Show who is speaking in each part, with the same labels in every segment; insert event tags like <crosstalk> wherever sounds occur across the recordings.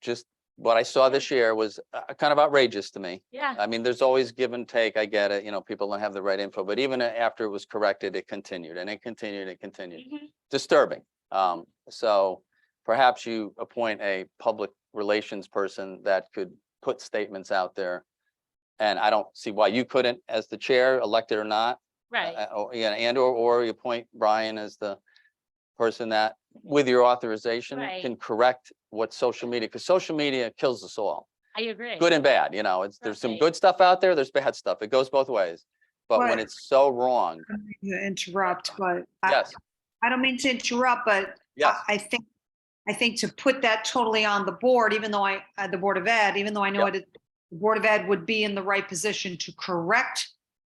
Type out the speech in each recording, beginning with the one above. Speaker 1: just what I saw this year was uh, kind of outrageous to me.
Speaker 2: Yeah,
Speaker 1: I mean, there's always give and take. I get it. You know, people don't have the right info, but even uh, after it was corrected, it continued and it continued and continued.
Speaker 2: Mhm.
Speaker 1: Disturbing. Um, so perhaps you appoint a public relations person that could put statements out there. And I don't see why you couldn't, as the chair, elected or not,
Speaker 2: right.
Speaker 1: uh, Or, yeah, and or, or you appoint Brian as the person that, with your authorization,
Speaker 2: Right.
Speaker 1: can correct what social media, because social media kills us all,
Speaker 2: I agree.
Speaker 1: good and bad, you know, it's, there's some
Speaker 2: Right.
Speaker 1: good stuff out there, there's bad stuff, it goes both ways. But when
Speaker 3: Right.
Speaker 1: it's so wrong,
Speaker 3: don't mean to interrupt, but. I-
Speaker 1: yes,
Speaker 3: I don't mean to interrupt, but.
Speaker 1: yes,
Speaker 3: I I think, I think to put that totally on the board, even though I, uh, the Board of Ed, even though I know
Speaker 1: Yeah.
Speaker 3: it, the Board of Ed would be in the right position to correct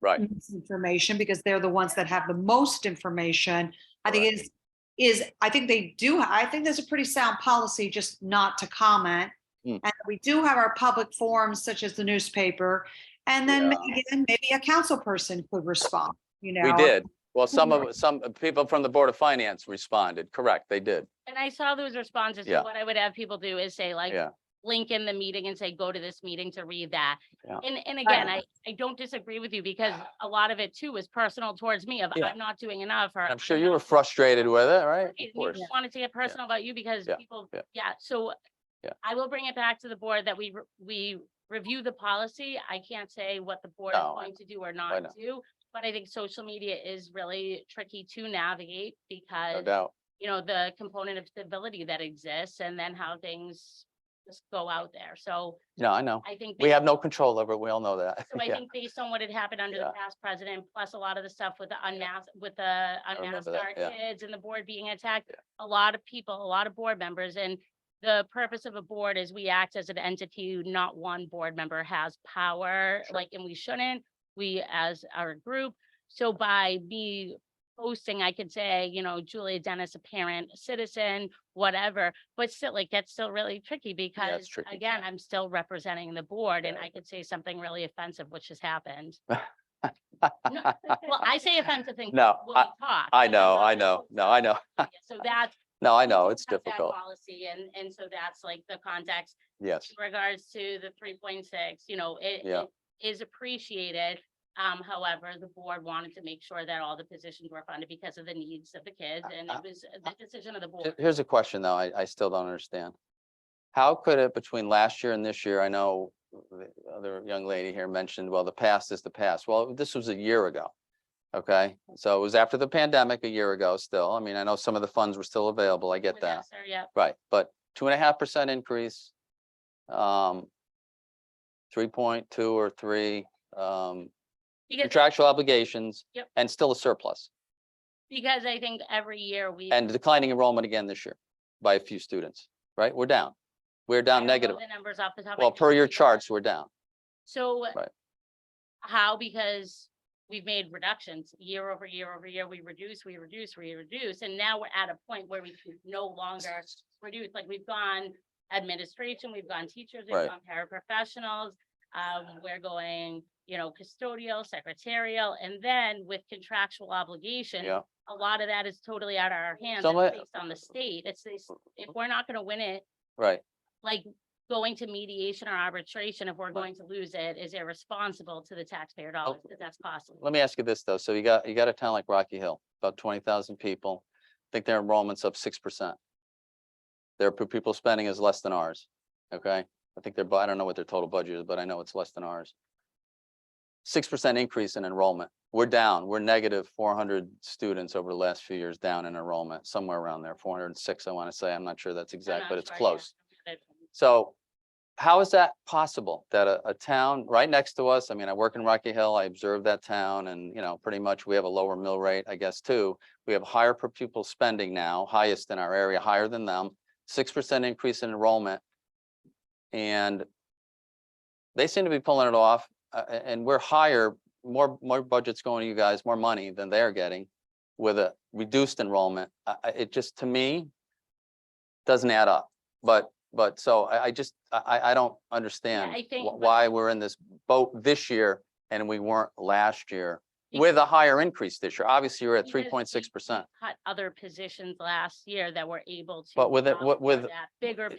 Speaker 1: right,
Speaker 3: misinformation because they're the ones that have the most information. I think is, is, I think they do, I think there's a pretty sound policy just not to comment.
Speaker 1: Mm.
Speaker 3: And we do have our public forums such as the newspaper. And then again, maybe a council person could respond, you know?
Speaker 1: we did. Well, some of, some people from the Board of Finance responded, correct, they did,
Speaker 2: And I saw those responses.
Speaker 1: Yeah.
Speaker 2: So what I would have people do is say like,
Speaker 1: Yeah.
Speaker 2: link in the meeting and say, go to this meeting to read that.
Speaker 1: Yeah.
Speaker 2: And, and again, I, I don't disagree with you
Speaker 1: <sighs>
Speaker 2: because a lot of it too was personal towards me of
Speaker 1: Yeah.
Speaker 2: I'm not doing enough or.
Speaker 1: And I'm sure you were frustrated with it, right? Of
Speaker 2: You
Speaker 1: course,
Speaker 2: just wanted to get personal about you because
Speaker 1: Yeah.
Speaker 2: people,
Speaker 1: Yeah.
Speaker 2: yeah, so.
Speaker 1: Yeah.
Speaker 2: I will bring it back to the board that we, re- we review the policy. I can't say what the board is
Speaker 1: No, I-
Speaker 2: going to do or
Speaker 1: not?
Speaker 2: not do. But I think social media is really tricky to navigate
Speaker 1: no
Speaker 2: because
Speaker 1: doubt,
Speaker 2: you know, the component of civility that exists and then how things just go out there. So
Speaker 1: no, I know,
Speaker 2: I think.
Speaker 1: we
Speaker 2: based-
Speaker 1: have no control over it, we all know that.
Speaker 2: So
Speaker 1: <laughs>
Speaker 2: I
Speaker 1: Yeah.
Speaker 2: think based on what had happened under
Speaker 1: Yeah.
Speaker 2: the past president, plus a lot of the stuff with the unmasked, with the
Speaker 1: remember
Speaker 2: unmasked
Speaker 1: that,
Speaker 2: our
Speaker 1: yeah.
Speaker 2: kids and the board being attacked. A lot of people, a lot of board members and the purpose of a board is we act as an entity, not one board member has power,
Speaker 1: Sure.
Speaker 2: like, and we shouldn't. We as our group, so by me posting, I could say, you know, Julia Dennis, a parent, a citizen, whatever. But still, like, that's still really tricky because,
Speaker 1: tricky.
Speaker 2: again, I'm still representing the board and
Speaker 1: Yeah.
Speaker 2: I could say something really offensive, which has happened. No, Well, I say offensive things.
Speaker 1: No,
Speaker 2: when we
Speaker 1: I-
Speaker 2: talk,
Speaker 1: I
Speaker 2: but I'm
Speaker 1: know,
Speaker 2: not
Speaker 1: I
Speaker 2: gonna
Speaker 1: know,
Speaker 2: post
Speaker 1: no,
Speaker 2: on
Speaker 1: I know,
Speaker 2: social media. So <laughs> that's.
Speaker 1: no, I know,
Speaker 2: we
Speaker 1: it's
Speaker 2: have that
Speaker 1: difficult,
Speaker 2: Policy and, and so that's like the context
Speaker 1: yes,
Speaker 2: in regards to the three point six, you know, it
Speaker 1: Yeah.
Speaker 2: it is appreciated. Um, however, the board wanted to make sure that all the positions were funded because of the needs of the kids and
Speaker 1: uh,
Speaker 2: it was the decision of the
Speaker 1: Here-
Speaker 2: board.
Speaker 1: Here's a question, though, I, I still don't understand. How could it, between last year and this year, I know the other young lady here mentioned, well, the past is the past. Well, this was a year ago. Okay, so it was after the pandemic a year ago still. I mean, I know some of the funds were still available. I get
Speaker 2: with
Speaker 1: that.
Speaker 2: ESSER, Yep.
Speaker 1: Right, but two and a half percent increase. Um. Three point two or three, um,
Speaker 2: Because,
Speaker 1: contractual obligations.
Speaker 2: Yep.
Speaker 1: And still a surplus
Speaker 2: because I think every year we.
Speaker 1: and declining enrollment again this year by a few students, right? We're down. We're
Speaker 2: I don't
Speaker 1: down
Speaker 2: know
Speaker 1: negative.
Speaker 2: The numbers off the top. of my
Speaker 1: Well,
Speaker 2: head,
Speaker 1: per your
Speaker 2: because-
Speaker 1: charts, we're down.
Speaker 2: So. uh,
Speaker 1: Right.
Speaker 2: How? Because we've made reductions year over year over year. We reduce, we reduce, we reduce, and now we're at a point where we can no longer reduce. Like we've gone administration, we've gone teachers, we've
Speaker 1: Right.
Speaker 2: gone paraprofessionals. Um, we're going, you know, custodial, secretarial, and then with contractual obligation.
Speaker 1: Yeah.
Speaker 2: A lot of that is totally out of our hands.
Speaker 1: Some of-
Speaker 2: It's
Speaker 1: Uh-huh.
Speaker 2: based on the state. It's, it's- if we're not gonna win it,
Speaker 1: Right,
Speaker 2: like going to mediation or arbitration if we're going to lose it is irresponsible to the
Speaker 1: Oh.
Speaker 2: taxpayer dollars, because that's costly.
Speaker 1: let me ask you this though, so you got, you got a town like Rocky Hill, about twenty thousand people, I think their enrollment's up six percent. Their per pupil spending is less than ours, okay? I think their, bu- I don't know what their total budget is, but I know it's less than ours. Six percent increase in enrollment, we're down, we're negative four hundred students over the last few years down in enrollment, somewhere around there, four hundred and six, I want to say, I'm not sure that's exact, but it's close. So how is that possible that a, a town right next to us, I mean, I work in Rocky Hill, I observe that town and, you know, pretty much we have a lower mill rate, I guess, too. We have higher per pupil spending now, highest in our area, higher than them, six percent increase in enrollment. And they seem to be pulling it off, uh, a- and we're higher, more, more budgets going to you guys, more money than they're getting with a reduced enrollment. Uh, uh, it just, to me, doesn't add up. But, but so I, I just, I, I- I don't understand
Speaker 2: I think
Speaker 1: wh-
Speaker 2: what-
Speaker 1: why we're in this boat this year and we weren't last year with a higher increase this year. Obviously, you're at
Speaker 2: Because we-
Speaker 1: three point six percent.
Speaker 2: Cut other positions last year that were able to.
Speaker 1: But with it-
Speaker 2: account
Speaker 1: with-
Speaker 2: for
Speaker 1: with-
Speaker 2: that Bigger